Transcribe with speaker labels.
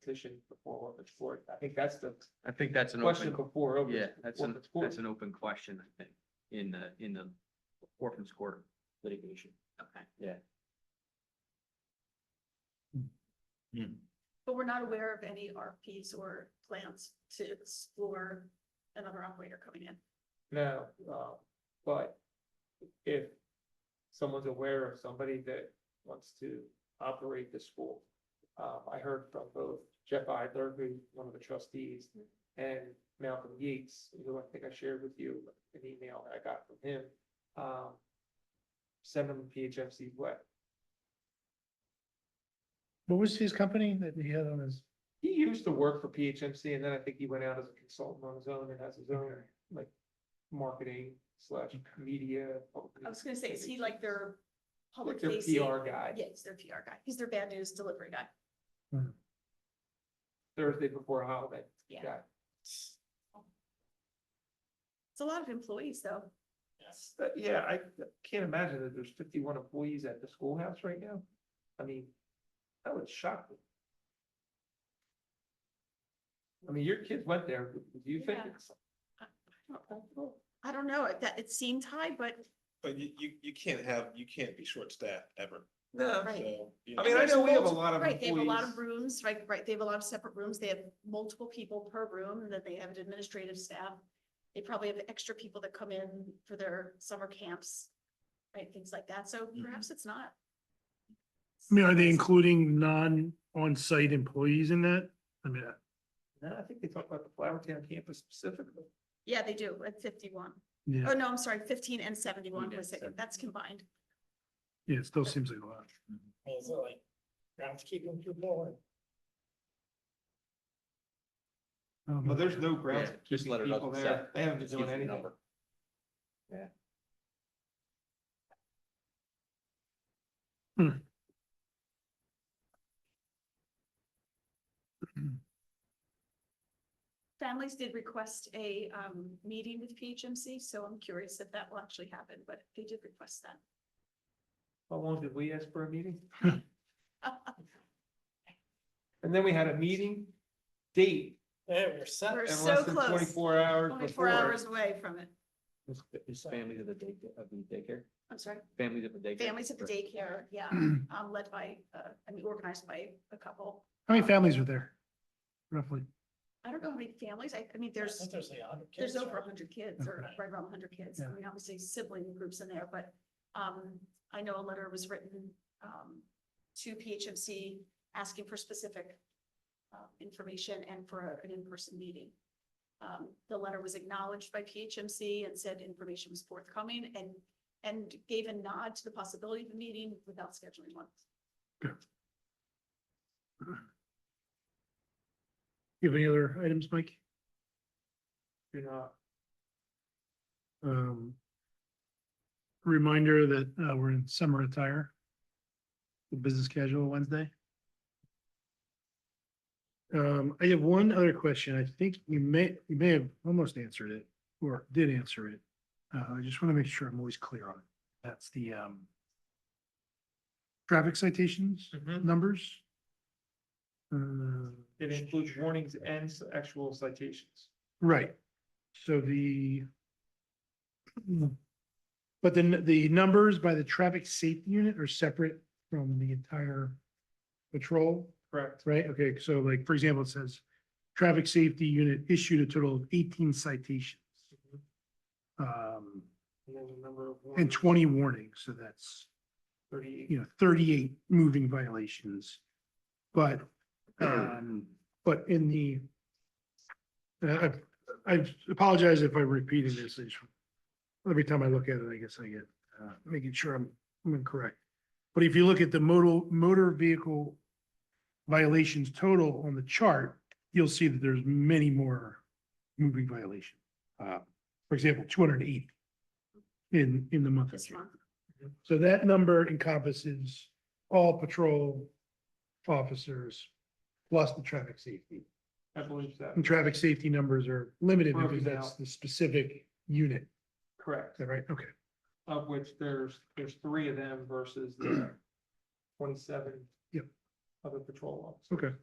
Speaker 1: petition before August fourth. I think that's the
Speaker 2: I think that's an
Speaker 1: question
Speaker 2: open,
Speaker 1: before. August-
Speaker 2: yeah, that's an,
Speaker 1: August 4th.
Speaker 2: that's an open question, I think, in the, in the orphans court litigation. Okay. Yeah. Hmm.
Speaker 3: But we're not aware of any RFPs or plans to explore another operator coming in.
Speaker 1: No, uh, but if someone's aware of somebody that wants to operate the school. Um, I heard from both Jeff Idler, who's one of the trustees, and Malcolm Yeats, who I think I shared with you an email that I got from him. Um, send them PHFC's way.
Speaker 4: What was his company that he had on his?
Speaker 1: He used to work for PHMC and then I think he went out as a consultant on his own and has his own like marketing slash media.
Speaker 3: I was gonna say, is he like their public
Speaker 1: Like their
Speaker 3: facing?
Speaker 1: PR guy.
Speaker 3: Yeah, he's their PR guy. He's their bad news delivery guy.
Speaker 1: Thursday before holiday.
Speaker 3: Yeah.
Speaker 1: Got it.
Speaker 3: It's a lot of employees though.
Speaker 1: Yes. yeah, I can't imagine that there's fifty-one employees at the schoolhouse right now. I mean, that would shock me. I mean, your kids went there, do you think?
Speaker 3: Yeah.
Speaker 1: it's- not comfortable?
Speaker 3: I don't know, it- that, it seemed high, but
Speaker 5: But you, you, you can't have, you can't be short-staffed ever,
Speaker 1: No,
Speaker 3: Right.
Speaker 5: so. you
Speaker 1: I mean, I
Speaker 3: There's
Speaker 1: know we have a
Speaker 3: multiple-
Speaker 1: lot of
Speaker 3: Right, they have a lot of
Speaker 1: employees.
Speaker 3: rooms, right, right, they have a lot of separate rooms, they have multiple people per room, and then they have an administrative staff. They probably have extra people that come in for their summer camps, right, things like that, so
Speaker 1: Mm-hmm.
Speaker 3: perhaps it's not.
Speaker 4: I mean, are they including non-on-site employees in that? I mean,
Speaker 1: no, I think they talk about the Flower Town campus specifically.
Speaker 3: Yeah, they do, at fifty-one.
Speaker 4: yeah,
Speaker 3: Oh, no, I'm sorry, fifteen and seventy-one
Speaker 2: Yeah,
Speaker 3: was it, that's combined.
Speaker 4: yeah, it still seems like a lot.
Speaker 6: Is it like groundskeeping people?
Speaker 4: Um,
Speaker 1: Well, there's no
Speaker 2: Yeah,
Speaker 1: grounds.
Speaker 2: just let it up.
Speaker 1: People there, they haven't been doing anything.
Speaker 3: Families did request a um meeting with PHMC, so I'm curious if that will actually happen, but they did request that.
Speaker 1: How long did we ask for a meeting? And then we had a meeting date.
Speaker 6: Yeah, we're set.
Speaker 3: We're
Speaker 1: and
Speaker 3: so
Speaker 1: less than
Speaker 3: close,
Speaker 1: Twenty-four hours
Speaker 3: twenty-four
Speaker 1: before.
Speaker 3: hours away from it.
Speaker 2: Is- Is families of the day, of the daycare,
Speaker 3: I'm sorry,
Speaker 2: families of the daycare?
Speaker 3: families at the daycare, yeah, um led by, uh, I mean, organized by a couple.
Speaker 4: How many families are there? Roughly,
Speaker 3: I don't know how many families, I I mean,
Speaker 6: I
Speaker 3: there's,
Speaker 6: think There's like a hundred kids.
Speaker 3: there's over
Speaker 6: right?
Speaker 3: hundred kids or right around hundred kids. I
Speaker 4: Yeah.
Speaker 3: mean, obviously sibling groups in there, but um I know a letter was written um to PHMC asking for specific uh, information and for a- an in-person meeting. Um, the letter was acknowledged by PHMC and said information was forthcoming and and gave a nod to the possibility of a meeting without scheduling one.
Speaker 4: you have any other items, Mike?
Speaker 1: Do not.
Speaker 4: Um. Reminder that uh we're in summer attire. The business casual Wednesday. Um, I have one other question. I think you may, you may have almost answered it or did answer it. Uh, I just want to make sure I'm always clear on it. That's the um. Traffic citations, numbers. Uh,
Speaker 1: Mm-hmm. It includes warnings and s- actual citations.
Speaker 4: Right, so the. hmm. But then the numbers by the traffic safety unit are separate from the entire patrol,
Speaker 1: Correct.
Speaker 4: right? Okay, so like, for example, it says, traffic safety unit issued a total of eighteen citations. Um,
Speaker 1: And then the number of.
Speaker 4: and
Speaker 1: warnings,
Speaker 4: twenty warnings, so that's,
Speaker 1: Thirty-eight.
Speaker 4: you know, thirty-eight moving violations. But, um, but in the. Uh, I, I apologize if I'm repeating this. I just- Every time I look at it, I guess I get, uh, making sure I'm, I'm incorrect. But if you look at the modal, motor vehicle. Violations total on the chart, you'll see that there's many more moving violation. Uh, for example, two hundred and eighty. In, in the month of
Speaker 3: This
Speaker 4: June.
Speaker 3: month.
Speaker 4: So that number encompasses all patrol officers plus the traffic safety.
Speaker 1: I believe that.
Speaker 4: And traffic safety numbers are limited
Speaker 1: Broken
Speaker 4: because that's
Speaker 1: out.
Speaker 4: the specific unit, is
Speaker 1: Correct.
Speaker 4: that right? Okay,
Speaker 1: Of which there's, there's three of them versus the twenty-seven.
Speaker 4: Yep.
Speaker 1: Other patrol officers.
Speaker 4: okay.